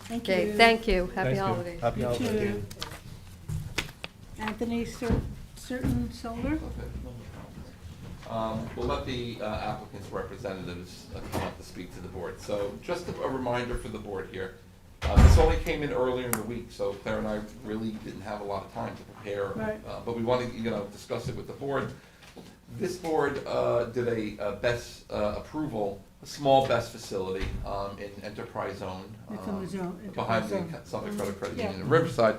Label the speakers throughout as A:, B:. A: Thank
B: Okay,
A: you.
B: thank you. Happy
C: Thanks, Bill.
B: holidays.
C: Happy
A: You
C: holidays.
A: too. Anthony Cer- Certain Solar?
D: Okay, no problem. Um, We'll let the uh, applicant's representatives uh, come up to speak to the board. So just a a reminder for the board here, uh, this only came in earlier in the week, so Claire and I really didn't have a lot of time to prepare.
A: Right.
D: uh, But we wanted, you know, discuss it with the board. This board uh, did a uh, best uh, approval, a small best facility um, in Enterprise Zone.
A: It's
D: um,
A: on the zone.
D: behind the
A: Enterprise zone. Mm-hmm.
D: Suffolk Federal Credit
A: Yeah.
D: Union in Riverside.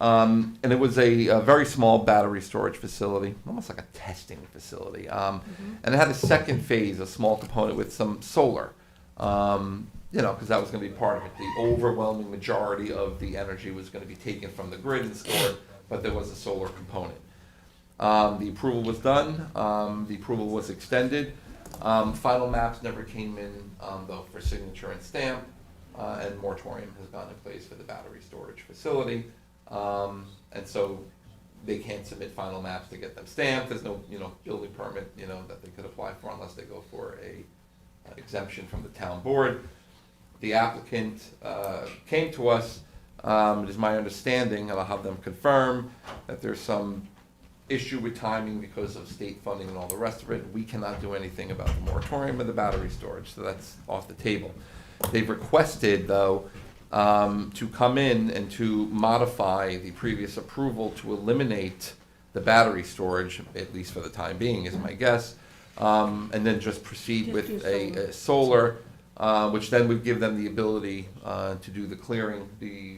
D: Um, and it was a, a very small battery storage facility, almost like a testing facility. Um,
A: Mm-hmm.
D: And it had a second phase, a small component with some solar, um, you know, because that was going to be part of it. The overwhelming majority of the energy was going to be taken from the grid and stored, but there was a solar component. Um, the approval was done, um, the approval was extended. Um, final maps never came in, um, though, for signature and stamp, uh, and moratorium has gone in place for the battery storage facility. Um, and so they can't submit final maps to get them stamped, there's no, you know, building permit, you know, that they could apply for unless they go for a uh, exemption from the town board the applicant uh, came to us, um, it is my understanding, and I'll have them confirm, that there's some issue with timing because of state funding and all the rest of it. We cannot do anything about the moratorium or the battery storage, so that's off the table. They've requested, though, um, to come in and to modify the previous approval to eliminate the battery storage, at least for the time being, is my guess, um, and then just proceed
A: Just do
D: with
A: solar.
D: a, a solar, uh, which then would give them the ability uh, to do the clearing. The,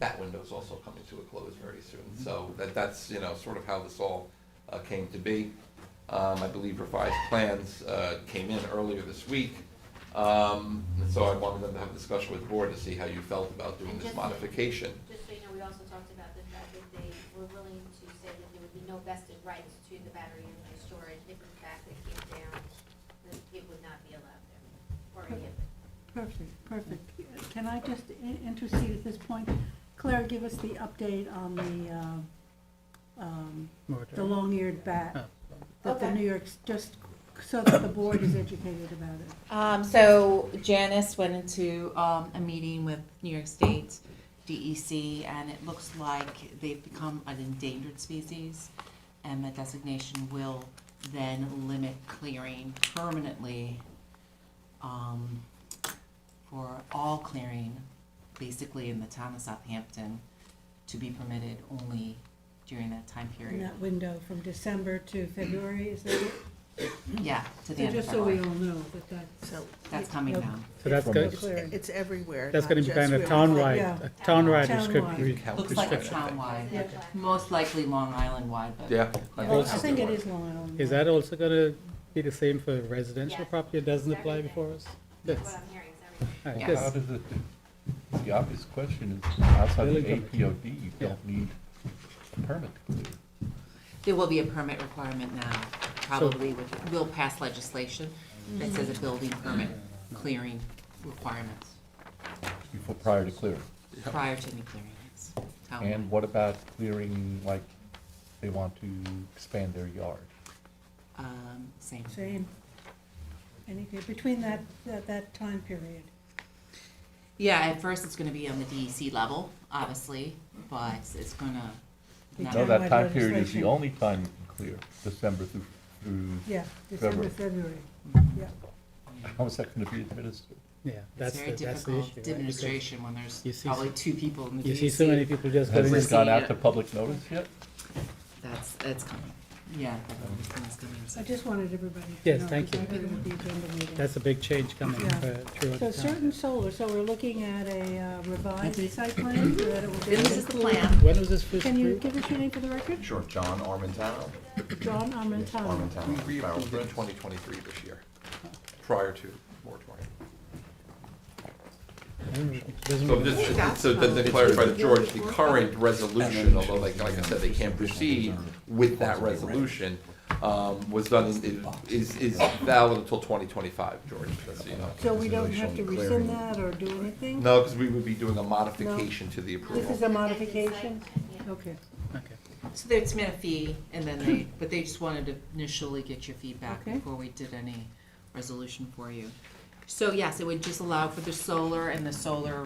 D: that window's also coming to a close very soon. So that, that's, you know, sort of how this all uh, came to be. Um, I believe revised plans uh, came in earlier this week. Um, and So I wanted them to have a discussion with the board to see how you felt about doing
E: And
D: this
E: just-
D: modification.
E: Just so you know, we also talked about the fact that they were willing to say that there would be no vested rights to the battery and the storage. If in fact it came down, that it would not be allowed there, or any of it.
A: Perfect, perfect. Can I just i- intercede at this point? Claire, give us the update on the, um, um, the long-eared bat that the
F: Okay.
A: New York's, just so that the board is educated about it.
F: Um, so Janice went into, um, a meeting with New York State DEC, and it looks like they've become an endangered species, and the designation will then limit clearing permanently, um, for all clearing, basically in the town of Southampton, to be permitted only during that time
A: In
F: period.
A: that window from December to February, is that it?
F: Yeah, to the
A: So
F: end of
A: just so we
F: February.
A: all know that that's.
G: So
F: That's coming
A: No.
F: down.
C: So that's
A: no
C: gonna,
A: clearing.
G: it's everywhere.
C: that's
G: not
C: gonna be
G: just
C: kind of
G: where-
C: townwide,
A: Yeah.
C: a townwide
A: Townwide.
C: restrict-
D: Count
F: Looks like a
D: restriction, I think.
F: townwide.
E: Is that black?
F: Most likely Long Island wide, but.
D: Yeah.
F: Yeah.
A: Well,
C: Also-
A: I think it is Long Island.
C: Is that also gonna be the same for residential
E: Yes.
C: property? It doesn't
E: It's
C: apply
E: everything.
C: before us?
E: That's
C: Yes.
E: What I'm hearing is everything.
C: All right,
F: Yeah.
C: good.
H: How does it, it's the obvious question is, outside of the
C: Building permit.
H: APOD, you don't need a permit to clear.
F: There will be a permit requirement now, probably with, we'll pass legislation that says
A: Mm.
F: a building permit clearing requirements
H: before, prior to clearing.
F: prior to any clearing. It's town-
H: And what about clearing, like, they want to expand their yard?
F: Um, same.
A: Same. Any, between that, that, that time period.
F: Yeah, at first it's gonna be on the DEC level, obviously, but it's gonna.
A: Be
F: now-
H: No,
A: Townwide
H: that time period is
A: legislation.
H: the only time you can clear, December through, through,
A: Yeah, December, February, yeah.
H: how is that gonna be administered?
C: Yeah,
F: It's
C: that's
F: very
C: the, that's the issue.
F: difficult
C: right? Because
F: administration when there's
C: you see
F: probably
C: so-
F: two people in the E DEC.
C: You see so many people just
H: Has
C: going
H: this
C: in.
H: gone
F: Yeah.
H: out to public notice yet?
F: That's, that's coming. Yeah, that's coming.
A: I just wanted everybody to know.
C: Yes, thank
A: because
C: you.
A: I did it with the agenda meeting.
C: That's a big change coming
A: Yeah.
C: for, throughout
A: So
C: the town.
A: certain solar, so we're looking at a uh, revised site plan that it will be.
F: This is the plan.
C: When was this first
A: Can you
C: approved?
A: give us your name for the record?
I: Sure, John Armentano.
A: John Armentano.
D: We
I: Armentano.
D: reapproved in 2023 this year, prior to moratorium.
C: I don't know. Doesn't
D: So
C: matter.
D: just, so then to clarify to George, the current resolution, although like, like I said, they can't proceed with that resolution, um, was done, in- is, is valid until twenty twenty-five, George, just so you know.
A: So we don't have to rescind that or do anything?
D: No, because we would be doing a modification to the
A: This is
D: approval.
A: a modification?
E: Yeah.
A: Okay.
C: Okay.
F: So they submit a fee, and then they, but they just wanted to initially get your feedback
A: Okay.
F: before we did any resolution for you. So yes, it would just allow for the solar, and the solar